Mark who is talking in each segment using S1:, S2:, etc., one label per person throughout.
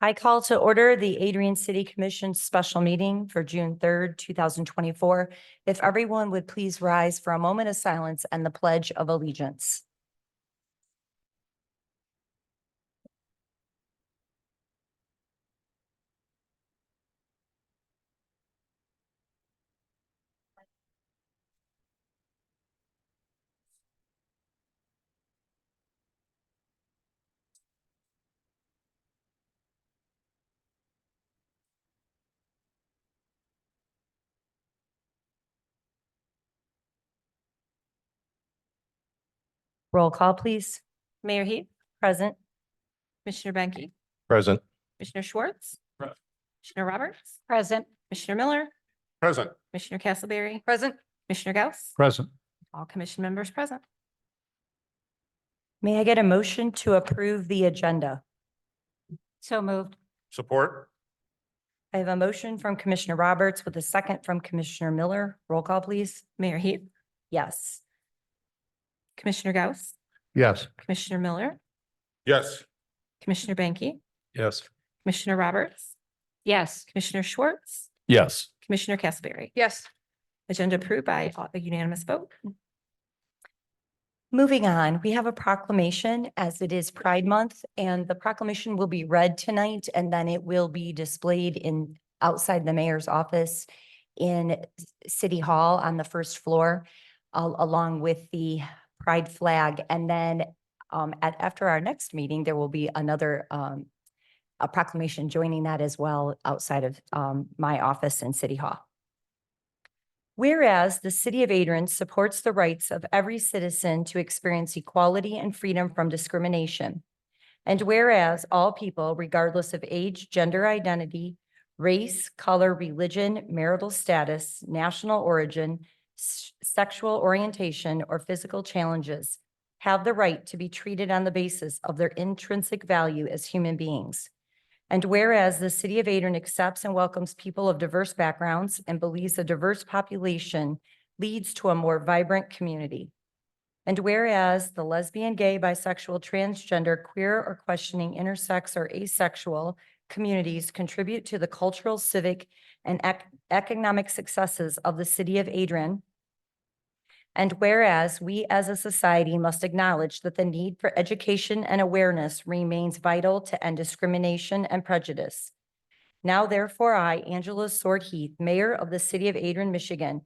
S1: I call to order the Adrian City Commission special meeting for June third, two thousand twenty-four. If everyone would please rise for a moment of silence and the pledge of allegiance. Roll call, please.
S2: Mayor Heath,
S1: Present.
S2: Commissioner Benke,
S3: Present.
S2: Commissioner Schwartz.
S3: Present.
S2: Commissioner Roberts,
S1: Present.
S2: Commissioner Miller,
S3: Present.
S2: Commissioner Castleberry,
S1: Present.
S2: Commissioner Gauss,
S3: Present.
S2: all commission members present.
S1: May I get a motion to approve the agenda? So moved.
S3: Support?
S1: I have a motion from Commissioner Roberts with a second from Commissioner Miller. Roll call, please.
S2: Mayor Heath,
S1: Yes.
S2: Commissioner Gauss,
S3: Yes.
S2: Commissioner Miller,
S3: Yes.
S2: Commissioner Benke,
S3: Yes.
S2: Commissioner Roberts. Yes. Commissioner Schwartz,
S3: Yes.
S2: Commissioner Castleberry.
S1: Yes.
S2: Agenda approved by a unanimous vote.
S1: Moving on, we have a proclamation as it is Pride Month and the proclamation will be read tonight and then it will be displayed in outside the mayor's office in City Hall on the first floor al- along with the Pride flag. And then um, at, after our next meeting, there will be another um, a proclamation joining that as well outside of um, my office in City Hall. Whereas the City of Adrian supports the rights of every citizen to experience equality and freedom from discrimination. And whereas all people, regardless of age, gender identity, race, color, religion, marital status, national origin, s- sexual orientation, or physical challenges, have the right to be treated on the basis of their intrinsic value as human beings. And whereas the city of Adrian accepts and welcomes people of diverse backgrounds and believes a diverse population leads to a more vibrant community. And whereas the lesbian, gay, bisexual, transgender, queer, or questioning, intersex, or asexual communities contribute to the cultural, civic, and ec- economic successes of the city of Adrian. And whereas we as a society must acknowledge that the need for education and awareness remains vital to end discrimination and prejudice. Now therefore, I, Angela Sword Heath, Mayor of the City of Adrian, Michigan,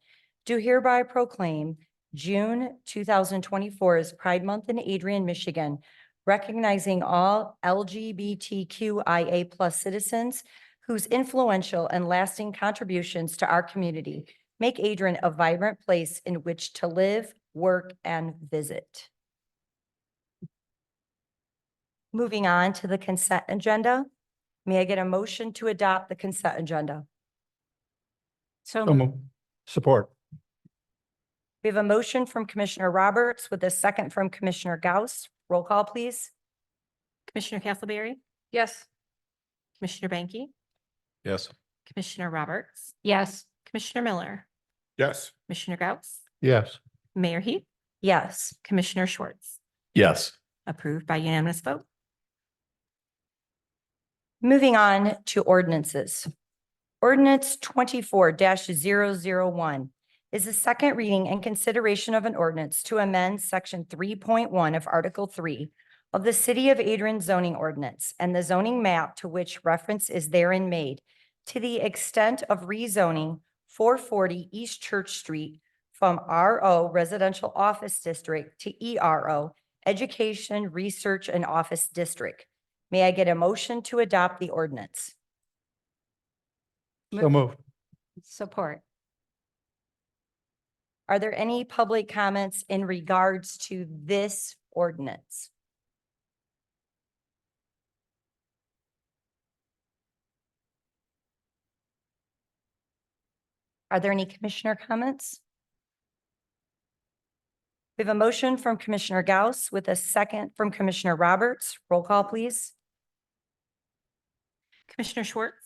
S1: do hereby proclaim June two thousand twenty-four as Pride Month in Adrian, Michigan, recognizing all LGBTQIA citizens whose influential and lasting contributions to our community make Adrian a vibrant place in which to live, work, and visit. Moving on to the consent agenda, may I get a motion to adopt the consent agenda? So
S3: Support?
S1: we have a motion from Commissioner Roberts with a second from Commissioner Gauss. Roll call, please.
S2: Commissioner Castleberry,
S1: Yes.
S2: Commissioner Benke,
S3: Yes.
S2: Commissioner Roberts,
S1: Yes.
S2: Commissioner Miller,
S3: Yes.
S2: Commissioner Gauss,
S3: Yes.
S2: Mayor Heath,
S1: Yes.
S2: Commissioner Schwartz,
S3: Yes.
S2: approved by unanimous vote.
S1: Moving on to ordinances. Ordinance twenty-four one is the second reading and consideration of an ordinance to amend section three point one of Article three of the City of Adrian zoning ordinance and the zoning map to which reference is therein made to the extent of rezoning four forty East Church Street from RO Residential Office District to ERO Education, Research, and Office District. May I get a motion to adopt the ordinance?
S3: So moved.
S1: Support. Are there any public comments in regards to this ordinance? Are there any commissioner comments? We have a motion from Commissioner Gauss with a second from Commissioner Roberts. Roll call, please.
S2: Commissioner Schwartz,